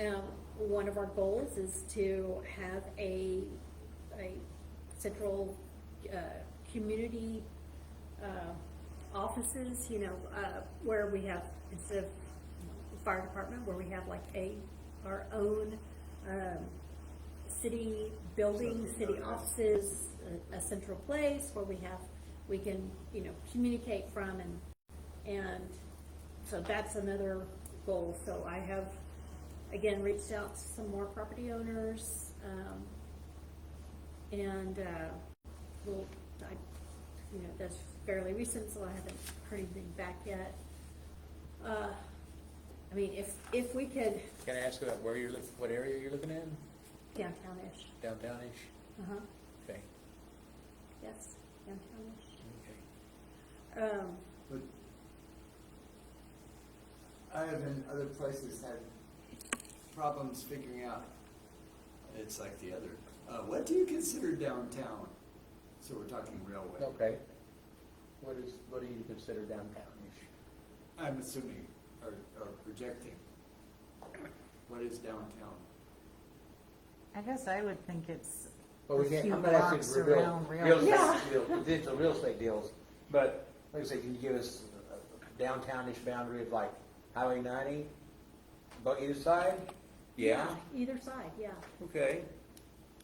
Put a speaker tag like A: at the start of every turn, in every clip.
A: Um, one of our goals is to have a, a central, uh, community, uh, offices, you know, uh, where we have, instead of the fire department, where we have like a, our own, um, city building, city offices, a, a central place where we have, we can, you know, communicate from and, and so that's another goal. So I have, again, reached out to some more property owners, um, and, uh, well, I, you know, that's fairly recent, so I haven't heard anything back yet. Uh, I mean, if, if we could
B: Can I ask about where you're, look- what area you're looking in?
A: downtown-ish,
B: Downtown-ish?
A: uh-huh,
B: Okay.
A: yes, downtown-ish.
B: Okay.
A: Um,
C: But I have in other places had problems figuring out. It's like the other. Uh, what do you consider downtown? So we're talking railway.
B: Okay. What is, what do you consider downtown-ish?
C: I'm assuming or, or projecting. What is downtown?
D: I guess I would think it's
B: Well, we
D: A
B: can't,
D: few
B: I'm not asking
D: blocks
B: for real,
D: around rail-
B: real estate
A: Yeah.
B: deal, potential real estate deals, but, like I say, can you give us a downtown-ish boundary of like Highway ninety, but either side? Yeah,
A: either side, yeah.
B: okay.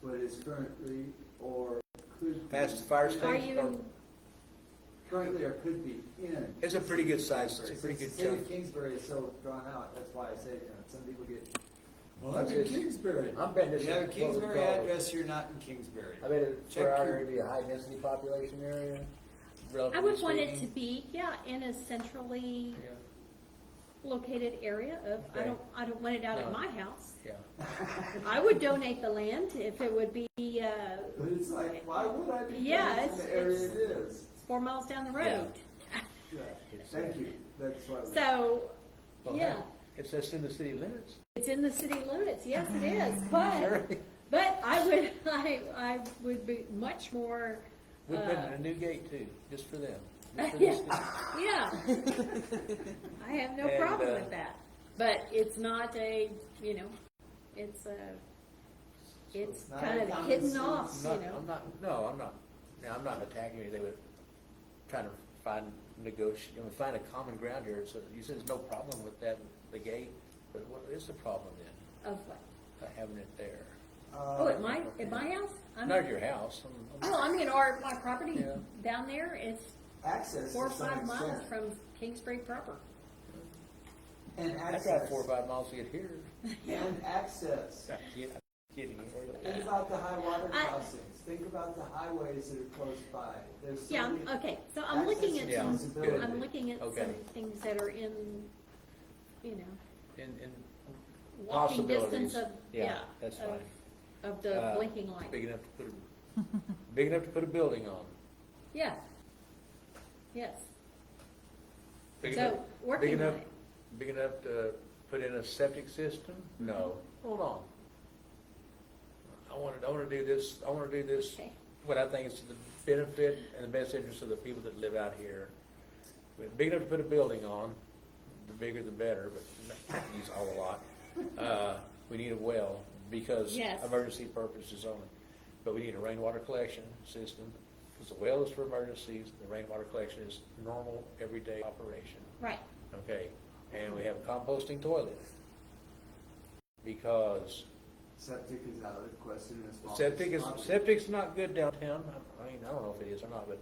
C: What is currently or could be
B: Past the fire
A: Are
B: station?
A: you,
C: currently or could be in.
B: It's a pretty good size, it's a
C: Kingsbury.
B: pretty
C: Since
B: good
C: the city of
B: chunk.
C: Kingsbury is so drawn out. That's why I say you know, some people get. Well,
B: I'm
C: I'm in
B: just-
C: Kingsbury.
B: I'm betting this
C: You have a
B: is what we
C: Kingsbury
B: call it.
C: address, you're not in Kingsbury.
B: I mean, it's
C: Check
B: for our
C: your-
B: area, to be a high-density population area,
A: I
B: relatively
A: would want it to
B: speaking.
A: be, yeah, in a centrally
B: Yeah,
A: located area of, I
B: Okay.
A: don't, I don't want it out
B: No.
A: at my house.
B: yeah.
A: I would donate the land if it would be, uh,
C: But it's like, why would I be
A: Yeah,
C: down in
A: it's-
C: the area
A: it's-
C: it is?
A: four miles down the road.
C: Yeah,
B: It's,
C: thank
B: uh,
C: you, that's why.
A: So,
B: well,
A: yeah,
B: no, It's just in the city limits.
A: it's in the city limits, yes it is, but, but I would, I, I would be much more,
B: We put in
A: Uh,
B: a new gate too, just for them. just for this
A: yeah, yeah. I have no
B: And,
A: problem
B: uh,
A: with that, but it's not a, you know, it's a, it's
C: it's not
A: kind
C: a
A: of
C: common
A: hidden
C: sense.
A: off, you
B: I'm not,
A: know.
B: I'm not, no, I'm not, no, I'm not attacking you, they were trying to find, negotiate, you know, find a common ground here, so you said there's no problem with that, the gate, but what is the problem then,
A: Of what?
B: by having it there?
C: Uh,
A: Oh, at my, at my house? I'm-
B: Not at your house, I'm- I'm-
A: Oh, I mean, or my property
B: Yeah.
A: down there is
C: Uh, Access
A: four or
C: to some
A: five miles
C: extent.
A: from Kingsbury proper.
C: And
B: I
C: access.
B: drive four or five miles to get here.
C: And access.
B: I'm kid- I'm Kidding.
C: Think about the high water
A: I-
C: crossings, think about the highways that are close by, there's so
A: Yeah,
C: many.
A: I'm- okay, so I'm looking at
C: access and
A: some,
B: Yeah.
C: feasibility.
A: I'm looking at some
B: Okay.
A: things that are in, you know,
B: And, and
A: walking
B: possibilities.
A: distance of, yeah.
B: That's
A: of-
B: fine.
A: Of the
B: Uh,
A: blinking light,
B: Big enough to put a, big enough to put a building on.
A: yeah. Yes,
B: Big
A: So,
B: enough-
A: working
B: big enough-
A: on it.
B: Big enough to put in a septic system? No, hold on. I want to, I want to do this, I want to do this,
A: Okay.
B: what I think is to the benefit and the best interest of the people that live out here. But Big enough to put a building on, the bigger the better, but use all a lot. Uh, we need a well because
A: Yes.
B: emergency purposes only. But we need a rainwater collection system, because the well is for emergencies, the rainwater collection is normal, everyday operation.
A: right,
B: Okay, and we have a composting toilet. Because
C: Septic is out of the question as well.
B: septic is, septic's not good downtown, I mean, I don't know if it is or not, but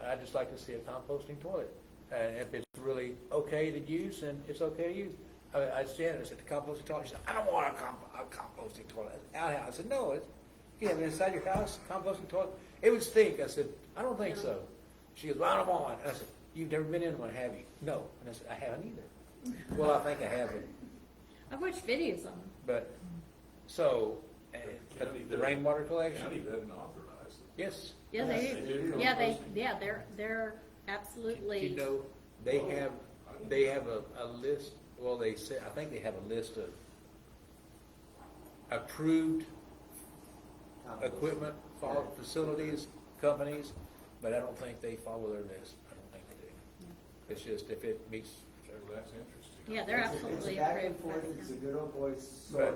B: I- I'd just like to see a composting toilet. And if it's really okay to use, then it's okay to use. I, I said, I said, the composting toilet, she said, I don't want a comp, a composting toilet, It's outhouse. I said, no, it's, you have it inside your house, composting toilet, it would stink, I said, I don't think so. She goes, well, I don't want one, and I said, you've never been in one, have you? No, and I said, I haven't either. Well, I think I have it.
A: I've watched videos on them,
B: But, so, uh, but the rainwater
E: County
B: collection,
E: doesn't authorize it.
B: yes,
A: yeah, they,
C: Yes,
E: they
A: do.
E: do.
A: yeah, they, yeah, they're, they're absolutely.
B: you know, they have, they have a, a list, well, they say, I think they have a list of approved equipment, fa- facilities, companies, but I don't think they follow their list, I don't think they do. It's just if it meets
E: So that's interesting.
A: Yeah, they're absolutely
C: It's back and
A: approved by
C: forth,
A: the
C: it's a
A: county.
C: good old boy sort
B: But-
C: of.